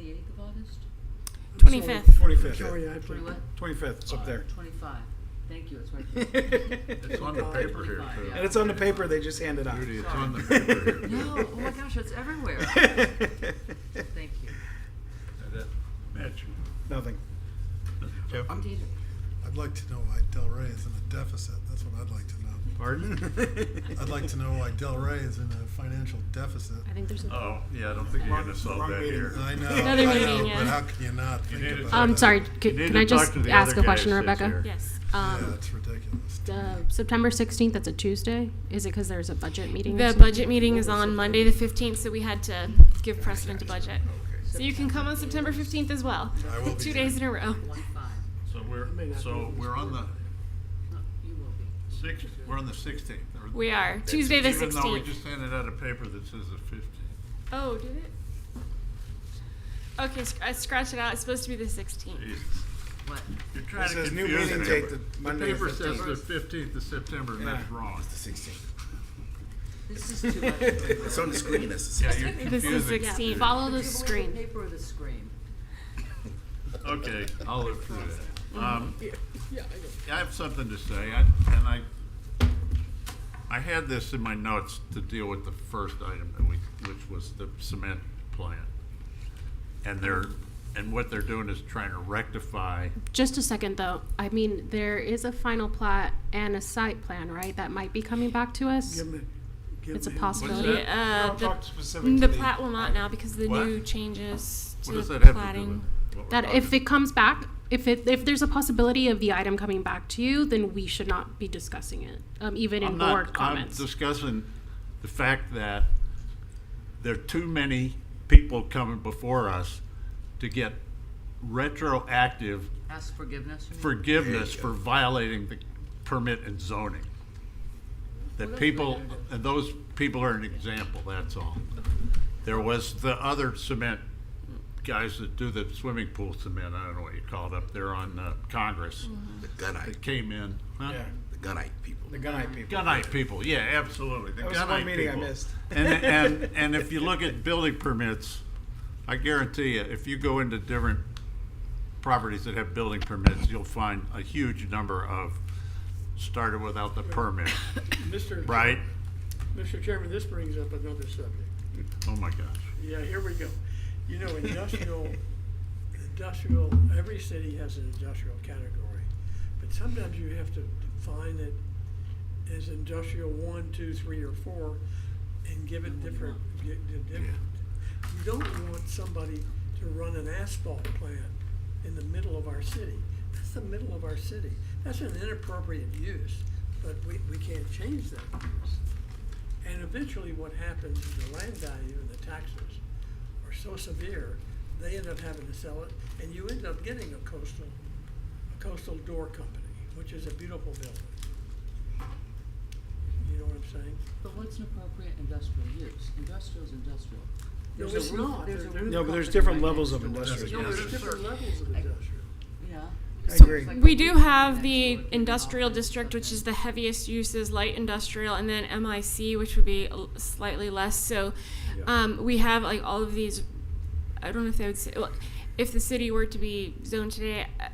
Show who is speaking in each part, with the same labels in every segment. Speaker 1: eighth of August?
Speaker 2: Twenty-fifth.
Speaker 3: Twenty-fifth.
Speaker 4: Sorry, I have
Speaker 1: Twenty
Speaker 4: to.
Speaker 1: what?
Speaker 3: Twenty-fifth, it's up there.
Speaker 1: Twenty-five. Thank you, it's right there.
Speaker 4: It's
Speaker 5: It's on the paper here,
Speaker 1: Twenty-five,
Speaker 5: too.
Speaker 1: yeah.
Speaker 3: And it's on the paper they just handed out.
Speaker 5: Judy, it's on the paper here. too.
Speaker 1: No, oh my gosh, it's everywhere. Thank you.
Speaker 5: That- Mitch,
Speaker 3: Nothing.
Speaker 5: Jeff,
Speaker 1: Indeed.
Speaker 4: I'd like to know why Del Rey is in a deficit. That's what I'd like to know.
Speaker 3: Pardon?
Speaker 4: I'd like to know why Del Rey is in a financial deficit.
Speaker 2: I think there's a.
Speaker 5: oh, yeah, I don't think you're gonna solve
Speaker 3: Wrong
Speaker 5: that
Speaker 3: meeting.
Speaker 5: here.
Speaker 4: I know, I
Speaker 2: Another
Speaker 4: know,
Speaker 2: meeting, yeah.
Speaker 4: but how can you not
Speaker 5: You
Speaker 4: think
Speaker 5: need to
Speaker 4: about
Speaker 5: talk-
Speaker 4: it?
Speaker 2: Um, sorry,
Speaker 5: You
Speaker 2: could,
Speaker 5: need
Speaker 2: can
Speaker 5: to
Speaker 2: I
Speaker 5: talk
Speaker 2: just
Speaker 5: to the
Speaker 2: ask
Speaker 5: other
Speaker 2: a
Speaker 5: guy
Speaker 2: question,
Speaker 5: that sits
Speaker 2: Rebecca?
Speaker 5: here.
Speaker 2: Yes.
Speaker 4: Yeah,
Speaker 2: Um,
Speaker 4: that's ridiculous.
Speaker 2: uh, September sixteenth, that's a Tuesday. Is it because there's a budget meeting? or
Speaker 6: The
Speaker 2: something?
Speaker 6: budget meeting is on Monday, the fifteenth, so we had to give precedent to budget. So you can come on September fifteenth as well.
Speaker 4: I will be
Speaker 6: Two
Speaker 4: there.
Speaker 6: days in a row.
Speaker 1: One-five.
Speaker 5: So we're, so we're on the
Speaker 1: No, you will be.
Speaker 5: sixth, we're on the sixteenth.
Speaker 6: We are, Tuesday the
Speaker 5: Even though we
Speaker 6: sixteenth.
Speaker 5: just handed out a paper that says the fifteenth.
Speaker 6: Oh, did it? Okay, sc- I scratched it out, it's supposed to be the sixteenth.
Speaker 1: What?
Speaker 5: You're trying to
Speaker 3: says new
Speaker 5: confuse
Speaker 3: meeting
Speaker 5: me.
Speaker 3: date, the
Speaker 5: The
Speaker 3: Monday the
Speaker 5: paper says the
Speaker 3: 15th.
Speaker 5: fifteenth of September, and that's
Speaker 3: Yeah.
Speaker 5: wrong.
Speaker 1: This is too much. Paper
Speaker 7: It's on the screen. That's
Speaker 5: Yeah, you're
Speaker 6: This is
Speaker 5: confusing.
Speaker 6: sixteen.
Speaker 2: Follow the
Speaker 1: The
Speaker 2: screen.
Speaker 1: paper or the screen?
Speaker 5: Okay, I'll look through that. Um, I have something to say, I- and I, I had this in my notes to deal with the first item, that we which was the cement plant. And they're, and what they're doing is trying to rectify,
Speaker 2: Just a second, though. I mean, there is a final plat and a site plan, right? That might be coming back to us. It's a
Speaker 5: What's
Speaker 2: possibility.
Speaker 5: that?
Speaker 6: Uh,
Speaker 3: Don't talk
Speaker 6: the, mm,
Speaker 3: specific to
Speaker 6: the
Speaker 3: the-
Speaker 6: plat will not now because of the
Speaker 5: What?
Speaker 6: new changes to
Speaker 5: what does
Speaker 6: the
Speaker 5: that have to do
Speaker 6: plating.
Speaker 5: with? what we're
Speaker 2: That if
Speaker 5: talking-
Speaker 2: it comes back, if it, if there's a possibility of the item coming back to you, then we should not be discussing it, um, even in
Speaker 5: I'm not-
Speaker 2: board comments.
Speaker 5: I'm discussing the fact that there are too many people coming before us to get retroactive
Speaker 1: Ask forgiveness? you mean?
Speaker 5: forgiveness for violating the permit and zoning. That people, and those people are an example, that's all. There was the other cement guys that do the swimming pool cement, I don't know what you call it up there on uh, Congress,
Speaker 3: Mm-hmm.
Speaker 7: the gunite,
Speaker 5: that came in. huh?
Speaker 3: Yeah,
Speaker 7: the gunite people.
Speaker 3: the gunite people.
Speaker 5: Gunite people, yeah, absolutely. The
Speaker 3: That was the one
Speaker 5: Gunite
Speaker 3: meeting I
Speaker 5: people.
Speaker 3: missed.
Speaker 5: And, and, and if you look at building permits, I guarantee you, if you go into different properties that have building permits, you'll find a huge number of started without the permit,
Speaker 8: Mr.
Speaker 5: right?
Speaker 8: Mr. Chairman, this brings up another subject.
Speaker 5: Oh my gosh.
Speaker 8: Yeah, here we go. You know, industrial, industrial, every city has an industrial category. But sometimes you have to define it as industrial one, two, three, or four, and give it different, gi- di- different. You don't want somebody to run an asphalt plant in the middle of our city. That's the middle of our city. That's an inappropriate use, but we, we can't change that use. And eventually what happens is the land value and the taxes are so severe, they end up having to sell it, and you end up getting a coastal, a coastal door company, which is a beautiful building. You know what I'm saying?
Speaker 1: But what's an appropriate industrial use? Industrial is industrial.
Speaker 8: No,
Speaker 1: There's a
Speaker 8: it's
Speaker 1: roof-
Speaker 8: not.
Speaker 1: There's a
Speaker 8: There-
Speaker 1: roof
Speaker 3: No, but there's
Speaker 1: company
Speaker 3: different
Speaker 1: right
Speaker 3: levels
Speaker 1: next
Speaker 3: of
Speaker 1: door.
Speaker 3: industrial
Speaker 8: No,
Speaker 1: Yes.
Speaker 8: there's different levels of industrial.
Speaker 1: Yeah.
Speaker 3: I agree.
Speaker 6: We do have the industrial district, which is the heaviest uses, light industrial, and then MIC, which would be l- slightly less. So um, we have like all of these, I don't know if they would say, well, if the city were to be zoned today, uh,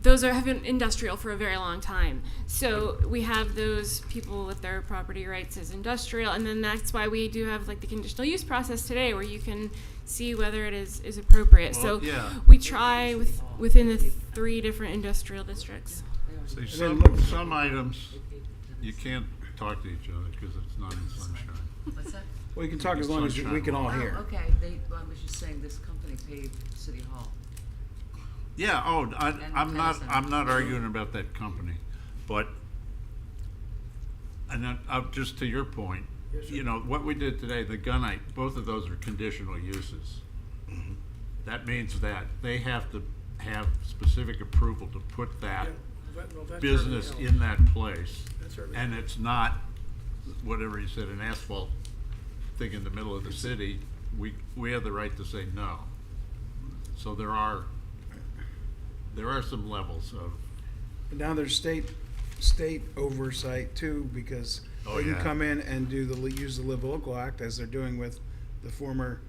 Speaker 6: those are, have been industrial for a very long time. So we have those people with their property rights as industrial, and then that's why we do have like the conditional use process today where you can see whether it is, is appropriate.
Speaker 5: Well,
Speaker 6: So
Speaker 5: yeah.
Speaker 6: we try with, within the three different industrial districts.
Speaker 5: See,
Speaker 3: then
Speaker 5: some,
Speaker 3: look-
Speaker 5: some items, you can't talk to each other because it's not in sunshine.
Speaker 1: What's that?
Speaker 3: We can talk as long as you- we can all hear.
Speaker 1: Oh, okay, they, well, I was just saying, this company paved City Hall.
Speaker 5: Yeah, oh, I,
Speaker 1: And
Speaker 5: I'm not,
Speaker 1: Tennyson.
Speaker 5: I'm not arguing about that company, but, and then, uh, just to your point, you know, what we did today, the gunite, both of those are conditional uses. That means that they have to have specific approval to put that
Speaker 8: But, well, that's
Speaker 5: business
Speaker 8: everything else.
Speaker 5: in that place.
Speaker 8: That's urban.
Speaker 5: And it's not, whatever you said, an asphalt thing in the middle of the city, we, we have the right to say no. So there are, there are some levels of,
Speaker 3: But now there's state, state oversight too, because
Speaker 5: Oh,
Speaker 3: they can
Speaker 5: yeah.
Speaker 3: come in and do the, li- use the Live Local Act as they're doing with the former